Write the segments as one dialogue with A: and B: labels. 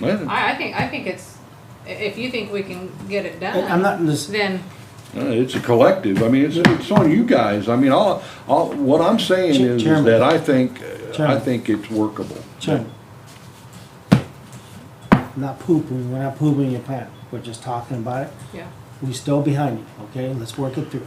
A: Yeah,
B: I, I think, I think it's, i- if you think we can get it
C: I'm
B: done,
C: not, this,
B: then,
A: uh, it's a collective, I mean, it's, it's on you guys, I mean, all, all, what I'm saying is, is
C: Chairman.
A: that I think, uh, I
C: Chairman.
A: think it's workable.
C: Chairman. I'm not poo-pooing, we're not poo-pooing your plan, we're just talking about it.
B: yeah.
C: We still behind you, okay? Let's work it through.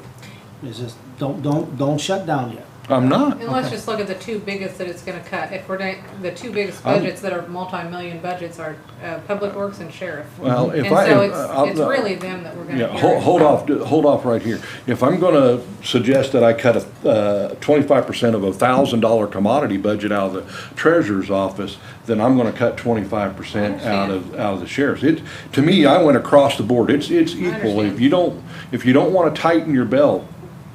C: It's just, don't, don't, don't shut down yet.
A: I'm not,
B: And let's just look at the two biggest that it's gonna cut. If we're, not- the two biggest
A: I'm-
B: budgets that are multi-million budgets are, uh, Public Works and Sheriff.
A: well,
B: And
A: if I. uh,
B: so
A: if- I'll-
B: it's, it's really them that we're
A: Yeah,
B: gonna
A: hold,
B: hear.
A: hold off, hold off right here. If I'm gonna suggest that I cut a uh, twenty-five percent of a thousand dollar commodity budget out of the treasurer's office, then I'm gonna cut twenty-five percent out of, out of the sheriff's. It, to me, I went across the board. It's, it's equal. If
B: understand.
A: you don't, if you don't wanna tighten your belt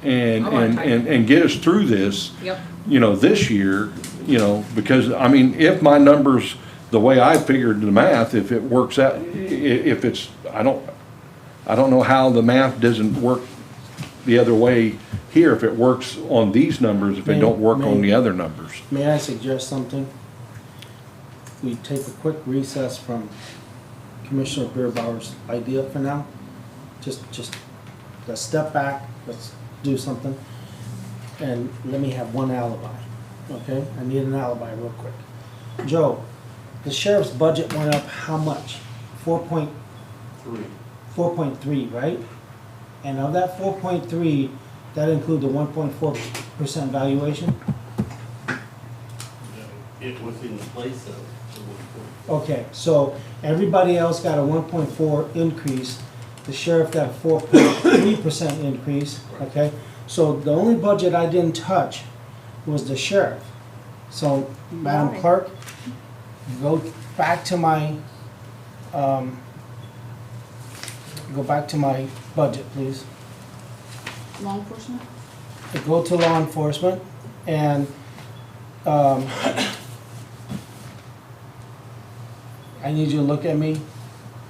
A: and,
B: I wanna
A: and,
B: tighten.
A: and, and get us through this,
B: Yep.
A: you know, this year, you know, because, I mean, if my numbers, the way I figured the math, if it works out, i- i- if it's, I don't, I don't know how the math doesn't work the other way here, if it works on these numbers, if it don't work on the other numbers.
C: May I suggest something? We take a quick recess from Commissioner Beerbauer's idea for now. Just, just, let's step back, let's do something. And let me have one alibi, okay? I need an alibi real quick. Joe, the sheriff's budget went up how much? Four point? Four point three, right? And of that four point three, that include the one point four percent valuation?
D: It was in place of the one
C: Okay, so everybody else got a one point four increase, the sheriff got a four point three percent increase, okay? So the only budget I didn't touch was the sheriff. So, Madam
B: Right.
C: Clerk, go back to my, um, go back to my budget, please.
E: Law enforcement?
C: Go to law enforcement and, um, I need you to look at me,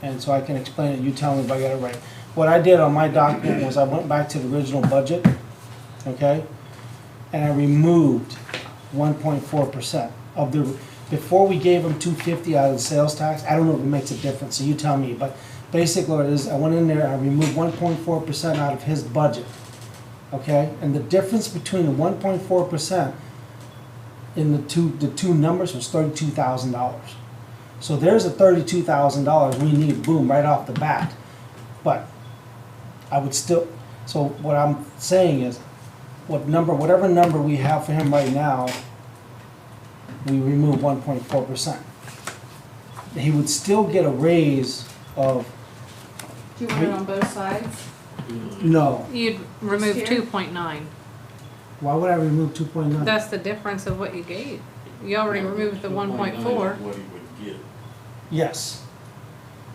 C: and so I can explain it, you tell me if I got it right. What I did on my document was I went back to the original budget, okay? And I removed one point four percent of the, before we gave them two fifty out of the sales tax, I don't know if it makes a difference, so you tell me, but basically what it is, I went in there, I removed one point four percent out of his budget, okay? And the difference between the one point four percent in the two, the two numbers was thirty-two thousand dollars. So there's a thirty-two thousand dollars we need, boom, right off the bat. But I would still, so what I'm saying is, what number, whatever number we have for him right now, we remove one point four percent. He would still get a raise of,
E: Do you want it on both sides?
C: no,
B: You'd remove
E: Here.
B: two point nine.
C: why would I remove two point nine?
B: That's the difference of what you gave. You already removed the one point four.
D: What he would get.
C: Yes.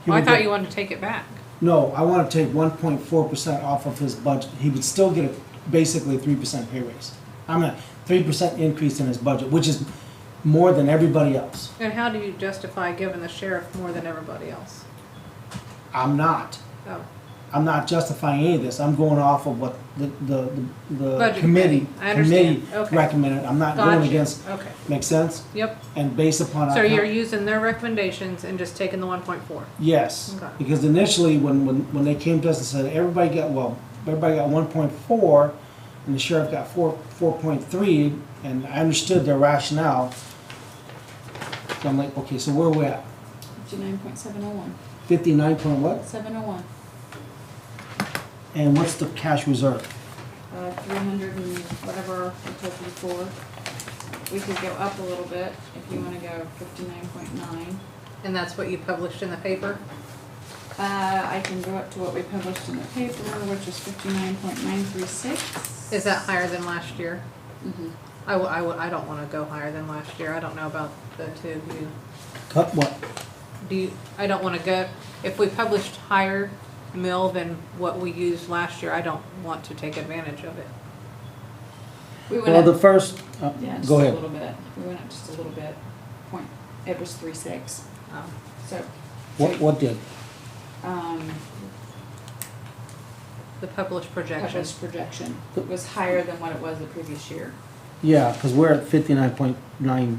C: He
B: Well, Oh, I
C: would
B: thought
C: get-
B: you wanted to take it back.
C: No, I wanna take one point four percent off of his budget, he would still get a, basically three percent pay raise. I'm a three percent increase in his budget, which is more than everybody else.
B: And how do you justify giving the sheriff more than everybody else?
C: I'm not,
B: Oh,
C: I'm not justifying any of this, I'm going off of what the, the, the- the
B: Budget
C: committee,
B: committee. I understand.
C: committee
B: Okay.
C: recommended, I'm not going
B: gotcha.
C: against,
B: Okay,
C: make sense?
B: yep.
C: And based upon.
B: So
C: our-
B: you're using their recommendations and just taking the one point four?
C: Yes,
B: Okay.
C: because initially, when, when, when they came to us and said, everybody got, well, everybody got one point four, and the sheriff got four, four point three, and I understood their rationale. So I'm like, okay, so where we at?
E: Fifty-nine point seven oh one.
C: Fifty-nine point what?
E: Seven oh one.
C: And what's the cash reserve?
E: Uh, three hundred and whatever I told you before. We could go up a little bit if you wanna go fifty-nine point nine.
B: And that's what you published in the paper?
E: Uh, I can go up to what we published in the paper, which is fifty-nine point nine three six.
B: Is that higher than last year?
E: Mm-hmm.
B: I, w- I, w- I don't wanna go higher than last year. I don't know about the two of you.
C: Cut what?
B: Do you, I don't wanna go, if we published higher mill than what we used last year, I don't want to take advantage of it.
E: We went
C: Well, the
E: up,
C: first, uh,
E: yeah, just a
C: go ahead.
E: little bit. We went up just a little bit. Point, it was three six,
B: Um,
E: so,
C: What, what did?
E: um,
B: The published projections.
E: published projection was higher than what it was the previous year.
C: Yeah, cause we're at fifty-nine point nine